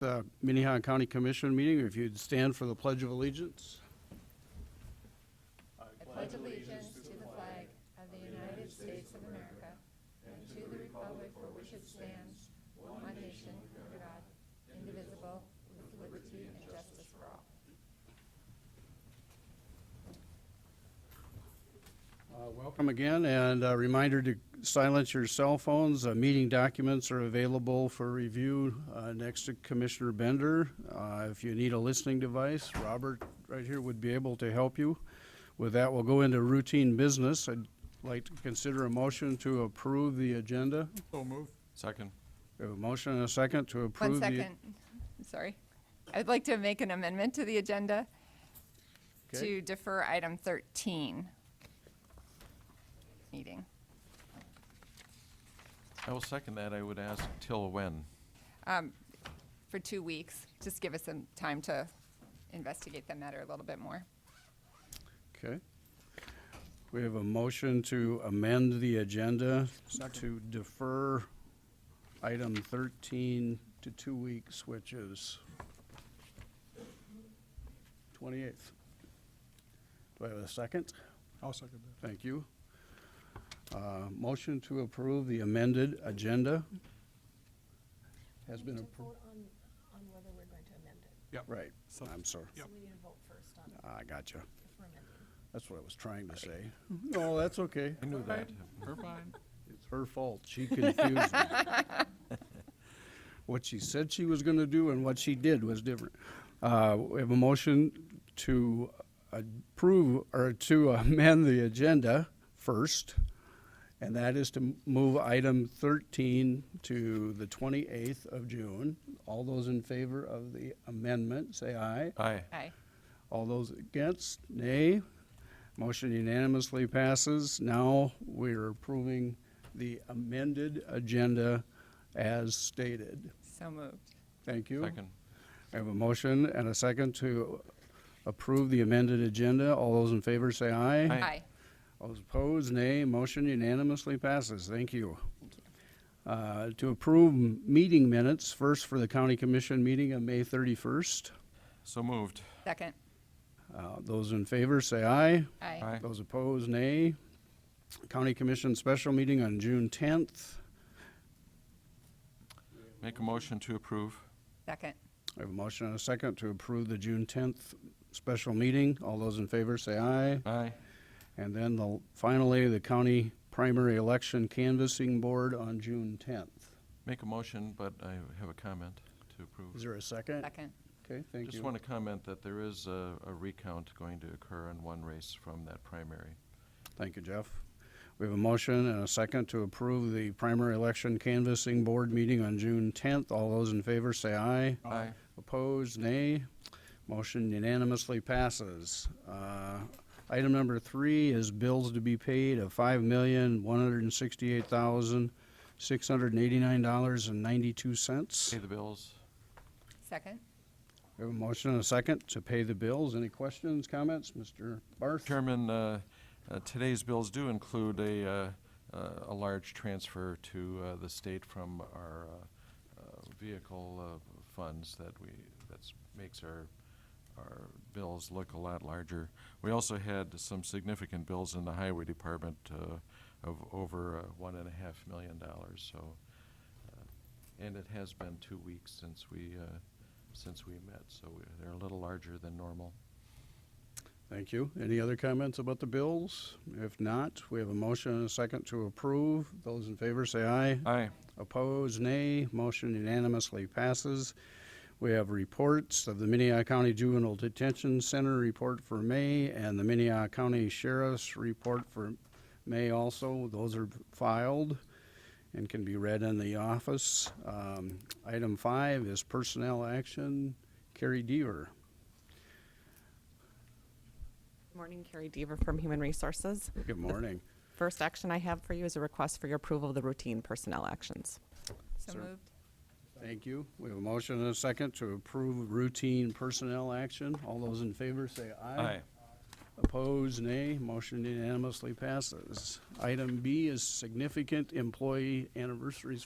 the Minnehaha County Commission meeting, if you'd stand for the Pledge of Allegiance. Uh, Welcome again, and a reminder to silence your cell phones. Uh, Meeting documents are available for review uh, next to Commissioner Bender. Uh, If you need a listening device, Robert right here would be able to help you. With that, we'll go into routine business. I'd like to consider a motion to approve the agenda. So moved. Second. We have A motion and a second to approve the. One second, sorry. I'd like to make an amendment to the agenda Okay. to defer item 13 meeting. I will second that. I would ask till when? um, for two weeks. Just give us some time to investigate the matter a little bit more. Okay. We have a motion to amend the agenda to defer item thirteen to two weeks, which is twenty-eighth. Do I have a second? I'll second Thank you. Uh, motion to approve the amended agenda has been approved. vote on, on whether we're going to amend it. Right, I'm sorry. So we need to vote first on I gotcha. if we're amending. That's what I was trying to say. No, that's okay. I knew that. that. We're fine. It's her fault. She confused me. What she said she was gonna do and what she did was different. Uh, we have a motion to approve, or to amend the agenda first, and that is to move item thirteen to the twenty-eighth of June. All those in favor of the amendment, say aye. Aye. Aye. All those against, nay. Motion unanimously passes. Now we're approving the amended agenda as stated. So moved. Thank you. Second. I have a motion and a second to approve the amended agenda. All those in favor say aye. Aye. All those opposed, nay. Motion unanimously passes. Thank you. Uh, To approve m- meeting minutes, first for the county commission meeting on May 31st. So moved. Second. Uh, Those in favor say aye. Aye. Aye. Those opposed, nay. County Commission special meeting on June 10th. Make a motion to approve. Second. I have a motion and a second to approve the June 10th special meeting. All those in favor say aye. Aye. And then the- finally, the County Primary Election Canvassing Board on June 10th. Make a motion, but I have a comment to approve. Is there a second? Second. Okay, thank Just you. want to comment that there is a, a recount going to occur in one race from that primary. Thank you, Jeff. We have a motion and a second to approve the Primary Election Canvassing Board meeting on June 10th. All those in favor say aye. Aye. Opposed, nay. Motion unanimously passes. Uh, Item number three is bills to be paid of five million, one hundred and sixty-eight thousand, six hundred and eighty-nine dollars and ninety-two cents. Pay the bills. Second. We have a motion and a second to pay the bills. Any questions, comments? Mr. Barth? Chairman, uh, uh, today's bills do include a, uh, uh, a large transfer to uh, the state from our uh, uh, vehicle uh, funds that we, that's, makes our, our bills look a lot larger. We also had some significant bills in the highway department uh, of over uh, one and a half million dollars, so. uh, And it has been two weeks since we, uh, since we met, so we- they're a little larger than normal. Thank you. Any other comments about the bills? If not, we have a motion and a second to approve. Those in favor say aye. Aye. Opposed, nay. Motion unanimously passes. We have reports of the Minnehaha County Juvenile Detention Center report for May and the Minnehaha County Sheriff's report for May also. Those are filed and can be read in the office. Um, Item five is personnel action. Carrie Deaver. Morning, Carrie Deaver from Human Resources. Good morning. First action I have for you is a request for your approval of the routine personnel actions. So Sir. moved. Thank you. We have a motion and a second to approve routine personnel action. All those in favor say aye. Opposed, nay. Motion unanimously passes. Item B is significant employee anniversaries